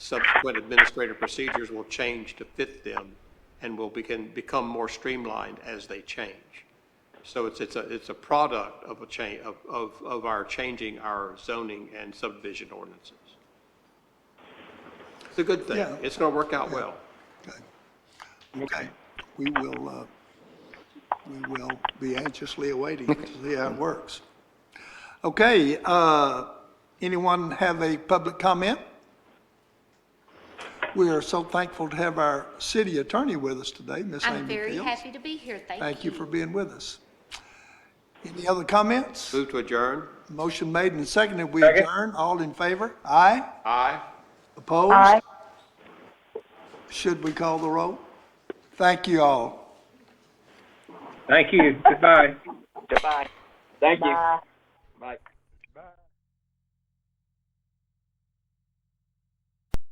subsequent administrative procedures will change to fit them and will begin, become more streamlined as they change. So it's, it's a, it's a product of a change, of, of, of our changing our zoning and subdivision ordinances. It's a good thing. Yeah. It's going to work out well. Okay. Okay, we will, uh, we will be anxiously awaiting to see how it works. Okay, uh, anyone have a public comment? We are so thankful to have our city attorney with us today, Miss Amy I'm Fields. very happy to be here. Thank you. Thank you for being with us. Any other comments? Move to adjourn? Motion made and seconded, we adjourn, all in favor? Aye? Aye. Opposed? Aye. Should we call the roll? Thank you all. Thank you. Goodbye. Goodbye. Thank you. Bye. Bye.